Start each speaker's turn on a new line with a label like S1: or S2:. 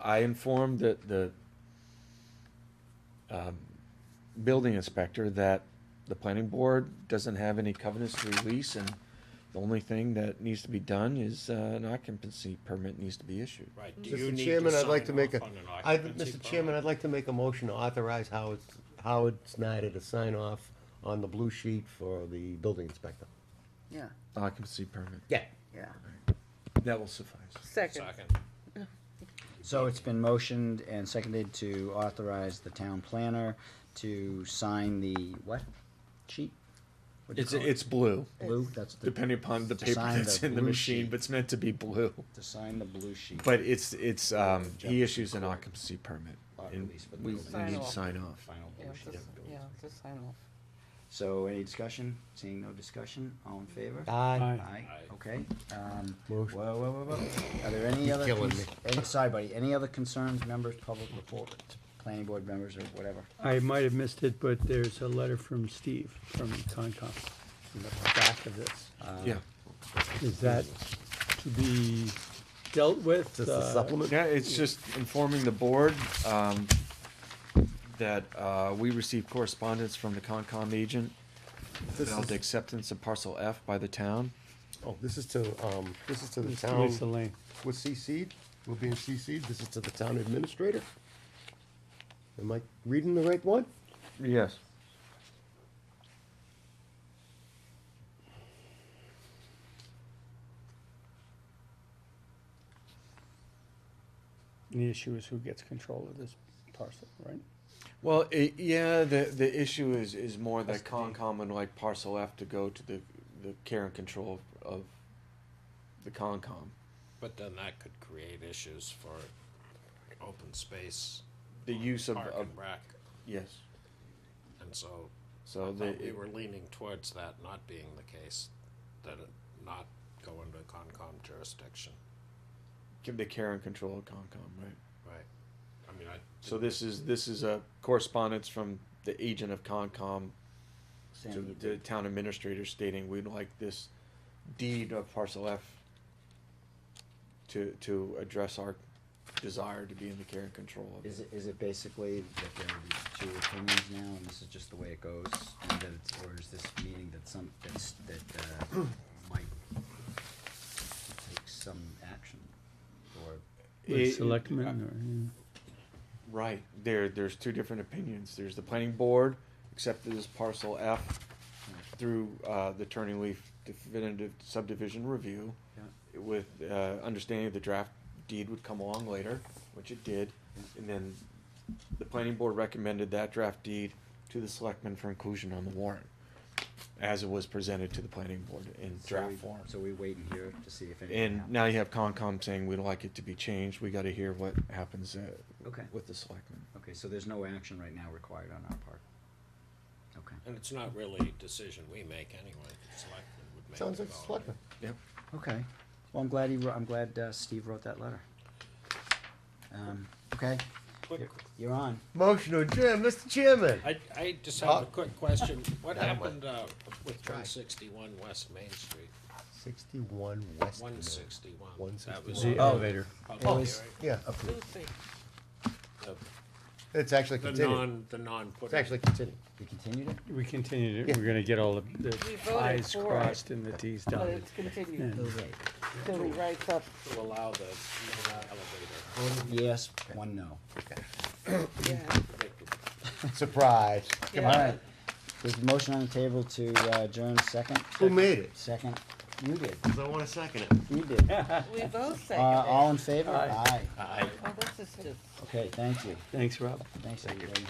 S1: I informed the, the, um, building inspector that the planning board doesn't have any covenants to release, and the only thing that needs to be done is, uh, an occupancy permit needs to be issued.
S2: Right, do you
S3: Mr.
S2: need to
S3: Chairman, I'd
S2: sign
S3: like to make a,
S2: off on an
S3: I,
S2: occupancy
S3: Mr. Chairman, I'd like to make a motion to authorize Howard, Howard Snyder to sign off on the blue sheet for the building inspector.
S4: Yeah,
S1: Occupancy permit,
S3: Yeah.
S4: yeah.
S1: that will suffice.
S2: permit?
S4: Second.
S2: Second,
S5: So it's been motioned and seconded to authorize the town planner to sign the what sheet? What do you
S1: It's,
S5: call it?
S1: it's blue,
S5: Blue, that's the.
S1: depending upon the
S5: to
S1: paper
S5: sign
S1: that's in the
S5: blue
S1: machine,
S5: sheet.
S1: but it's meant to be blue.
S5: To sign the blue sheet.
S1: But it's, it's, um, he issues an occupancy permit,
S5: Lot
S1: and
S5: release for the
S1: we we
S5: building.
S4: Sign
S1: need to
S4: off.
S1: sign off.
S5: Final
S4: Yeah,
S5: blue sheet.
S4: just, yeah, just sign off.
S5: So any discussion? Seeing no discussion, all in favor?
S3: Aye.
S5: Aye,
S2: Aye.
S5: okay, um, whoa,
S3: Motion.
S5: whoa, whoa, whoa, are there any other,
S3: killing
S5: cons- any- sorry buddy, any other concerns, members, public report, planning board members or whatever?
S6: I might have missed it, but there's a letter from Steve from Concom in the back of this.
S5: Uh,
S1: Yeah,
S6: Is that to be dealt with?
S3: Just a
S6: uh,
S3: supplement?
S1: yeah, it's just informing the board, um, that, uh, we received correspondence from the Concom agent
S3: This
S1: about the
S3: is,
S1: acceptance of parcel F by the town.
S3: oh, this is to, um, this is to the
S6: Lisa
S3: town,
S6: Lisa Lane.
S3: we're CC'd, we're being CC'd, this is to the town administrator. Am I reading the right one?
S1: Yes.
S6: The issue is who gets control of this parcel, right?
S1: Well, i yeah, the, the issue is, is more that
S5: Custody.
S1: Concom would like parcel F to go to the, the care and control of, of the Concom.
S2: but then that could create issues for open space,
S1: The use of,
S2: park
S1: of,
S2: and rec,
S1: yes,
S2: and so I
S1: so the,
S2: thought we were leaning towards that not being the case, that it not go into Concom jurisdiction,
S1: give the care and control of Concom, right?
S2: right? I mean, I.
S1: So this is, this is a correspondence from the agent of Concom
S5: Sam,
S1: to
S5: you
S1: the
S5: did-
S1: town administrator stating we'd like this deed of parcel F to, to address our desire to be in the care and control of it.
S5: Is it, is it basically that there will be two opinions now, and this is just the way it goes, and that it's, or is this meaning that some, that's, that, uh, might take some action, or,
S6: With
S1: It- uh,
S6: selectmen
S1: Right. There, there's two different opinions. There's the planning board accepted as parcel F through uh, the Turning Leaf definitive subdivision review with uh, understanding the draft deed would come along later, which it did. And then the planning board recommended that draft deed to the selectmen for inclusion on the warrant as it was presented to the planning board in
S5: so
S1: draft
S5: we-
S1: form.
S5: So we wait in here to see if anything
S1: And
S5: happens?
S1: now you have Concom saying we'd like it to be changed. We gotta hear what happens uh,
S5: Okay,
S1: with the selectmen.
S5: okay, so there's no action right now required on our part? Okay,
S2: And it's not really a decision we make anyway, the selectmen would make.
S3: Sounds
S2: the
S3: like a
S2: call.
S3: selectman.
S1: Yep.
S5: okay, well, I'm glad he, wrote- I'm glad, uh, Steve wrote that letter. Um, okay,
S2: Quick,
S5: you're on.
S3: Motion to adjourn, Mr. Chairman.
S2: I, I just have
S3: Uh,
S2: a quick question. What
S3: that one.
S2: happened, uh, with
S3: Try.
S2: one sixty-one West Main Street?
S3: Sixty-one West.
S2: One sixty-one. That
S3: 161.
S2: was
S6: The
S2: uh,
S6: elevator.
S3: Oh,
S2: public
S5: was-
S2: hearing.
S3: Yeah,
S4: Two things.
S2: The-
S3: it's actually
S2: The
S3: continued.
S2: non, the non-putting.
S3: It's actually continued.
S5: We continued it?
S6: We continued it, we're gonna get all the-
S4: We
S6: the
S4: voted
S6: i's
S4: for it.
S6: crossed and the t's
S4: But
S6: dotted.
S4: it's continued
S6: Yeah.
S4: till he writes up.
S2: To allow the no elevator.
S5: Yes, one no.
S4: Yeah.
S2: Predictable.
S3: Surprise.
S5: All right. There's a motion on the table to uh, adjourn second.
S3: Who made it?
S5: Second. You did.
S3: Because I want to second it.
S5: You did. Uh,
S4: We both say
S5: all in favor? Aye.
S4: Oh, this is just.
S5: Okay, thank you.
S6: Thanks, Rob.
S5: Thanks, everybody.